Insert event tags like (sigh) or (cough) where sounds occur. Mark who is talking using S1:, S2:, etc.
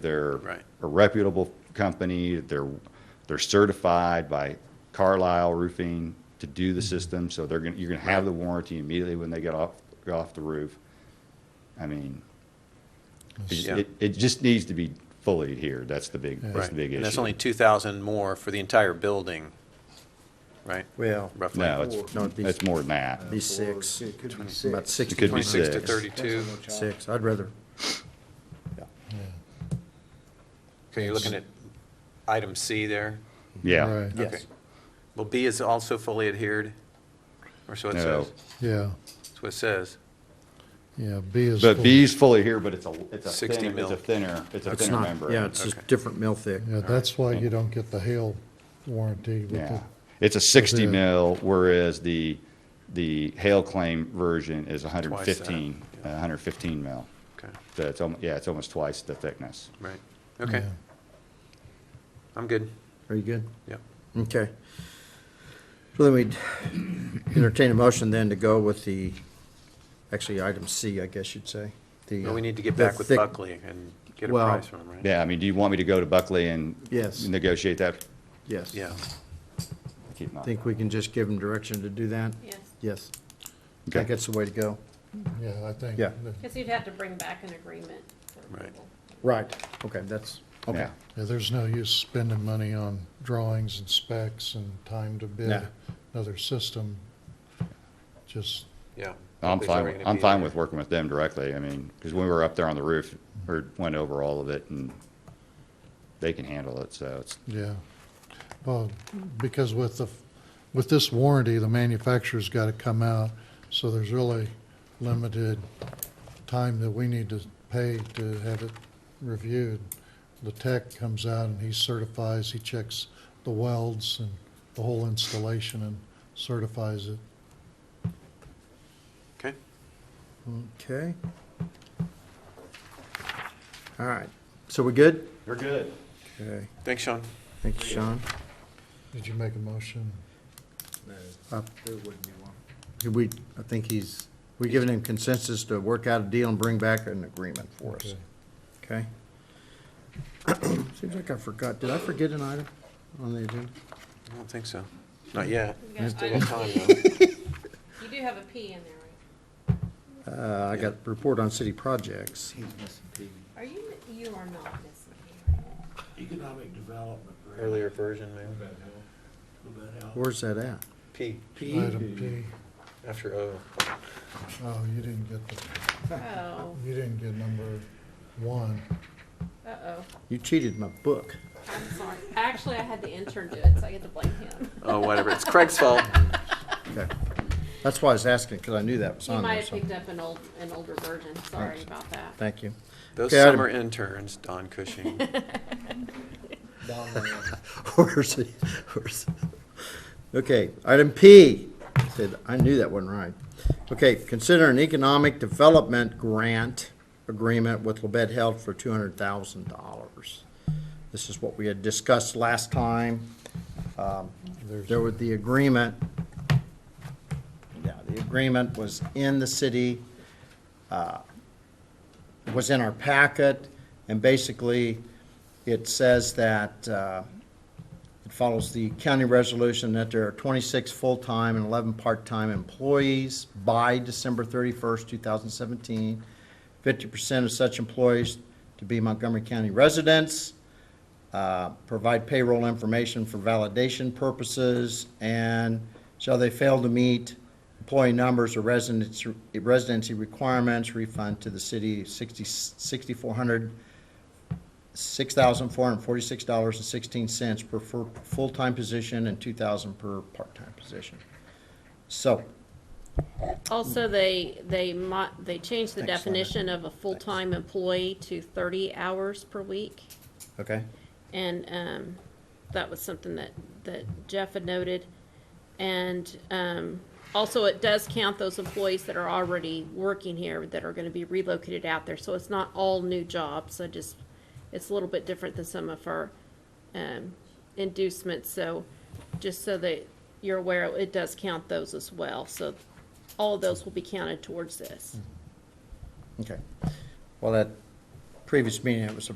S1: They're
S2: Right.
S1: a reputable company. They're, they're certified by Carlisle Roofing to do
S2: Mm-hmm.
S1: the system. So they're going, to you're going to have the warranty immediately when they get off, get off the roof. I mean, it,
S2: Yeah.
S1: it- it just needs to be fully adhered. That's the big, that's
S2: Right.
S1: the big
S2: And that's
S1: issue.
S2: only 2,000 more for the entire building, right?
S3: Well,
S2: Roughly.
S1: No,
S3: No,
S1: it's,
S3: it'd be-
S1: it's more than that.
S3: be six,
S4: It could be six.
S3: about sixty.
S1: It could be
S2: 26 to
S1: six.
S2: 32.
S3: Six, I'd rather,
S2: So you're looking at item C there?
S1: Yeah.
S5: Right,
S3: yes.
S2: Okay. Well, B is also fully adhered, or so it
S1: No.
S2: says.
S5: yeah,
S2: That's what it says.
S5: yeah, B is.
S1: But
S5: full.
S1: B's fully here, but it's a, it's a
S2: 60
S1: thinner, it's a
S2: mil.
S1: thinner, it's a
S3: It's
S1: thinner
S3: not,
S1: membrane.
S3: yeah, it's just
S2: Okay.
S3: different mill thick.
S5: Yeah, that's why you don't get the hail warranty with
S1: Yeah,
S5: the,
S1: it's a 60
S5: the-
S1: mil, whereas the, the hail claim version is 115,
S2: Twice
S1: uh, 115 mil.
S2: Okay,
S1: So it's, almo- yeah, it's almost twice the thickness.
S2: right. Okay,
S5: yeah.
S2: I'm good.
S3: Are you good?
S2: Yep.
S3: Okay. So then we'd entertain a motion then to go with the, actually, item C, I guess you'd say. The, uh,
S2: Well, we need to get
S3: the
S2: back with
S3: thick-
S2: Buckley and get a
S3: Well-
S2: price from him, right?
S1: Yeah, I mean, do you want me to go to Buckley and
S3: Yes.
S1: negotiate that?
S3: Yes.
S2: Yeah,
S1: Keep
S3: I
S1: not-
S3: Think we can just give them direction to do that?
S6: Yes,
S3: Yes. I
S1: Okay.
S3: think that's the way to go.
S5: Yeah, I think.
S3: Yeah.
S5: that-
S6: because you'd have to bring back an agreement for
S2: Right.
S6: approval.
S3: Right, okay, that's, okay.
S1: Yeah.
S5: Yeah, there's no use spending money on drawings and specs and time to bid
S3: No.
S5: another system. Just,
S2: yeah.
S1: I'm
S2: Buckley's already
S1: fine,
S2: gonna
S1: I'm
S2: be
S1: fine
S2: there.
S1: with working with them directly. I mean, because when we were up there on the roof, or went over all of it and they can handle it, so it's,
S5: yeah, well, because with the, with this warranty, the manufacturer's got to come out, so there's really limited time that we need to pay to have it reviewed. The tech comes out and he certifies, he checks the welds and the whole installation and certifies it.
S2: Okay,
S3: Okay. All right, so we're good?
S1: you're good.
S3: Okay,
S2: thanks, Sean.
S3: thank you, Sean.
S5: Did you make a motion?
S3: Uh, Did we, I think he's, we're giving him consensus to work out a deal and bring back an agreement for us,
S5: Okay.
S3: okay? (clears throat) Seems like I forgot, did I forget an item on the agenda?
S2: I don't think so. Not yet.
S6: You got
S2: Still got time,
S6: item
S2: though.
S6: P. You do have a P in there, right?
S3: Uh, I got report on city projects.
S6: Are you, you are not missing P, right?
S4: Economic development.
S2: Earlier version, maybe.
S3: Where's that at?
S2: P,
S5: Item P.
S2: after O.
S5: Oh, you didn't get the,
S6: Oh,
S5: you didn't get number one.
S6: uh-oh,
S3: You cheated my book.
S6: I'm sorry. Actually, I had the intern do it, so I get to blame him.
S2: Oh, whatever, it's Craig's fault.
S3: Okay. That's why I was asking, because I knew that was
S6: He
S3: on
S6: might
S3: there,
S6: have
S3: so,
S6: picked up an old, an older version, sorry
S3: Thanks.
S6: about that.
S3: thank you.
S2: Those
S3: Okay, item-
S2: summer interns, Don Cushing.
S3: (laughs) Where's it, where's it? Okay, item P, said, I knew that wasn't right. Okay, consider an economic development grant agreement with Labette Health for two hundred thousand dollars. This is what we had discussed last time. Um, There was the agreement. Yeah, the agreement was in the city, uh, was in our packet, and basically, it says that, uh, it follows the county resolution that there are 26 full-time and 11 part-time employees by December 31st, 2017. 50% of such employees to be Montgomery County residents. Uh, Provide payroll information for validation purposes. And shall they fail to meet employee numbers or residency residency requirements, refund to the city 60 6,400 six thousand four hundred forty-six dollars and sixteen cents per fu- full-time position and two thousand per part-time position. So,
S6: Also, they, they mo, they changed the
S3: Thanks, Linda.
S6: definition of a full-time employee to thirty hours per week.
S3: okay,
S6: And um, that was something that, that Jeff had noted. And um, also, it does count those employees that are already working here that are going to be relocated out there. So it's not all new jobs. I just, it's a little bit different than some of our um, inducements. So just so that you're aware, it does count those as well. So all of those will be counted towards this.
S3: okay. Well, that previous meeting, it was a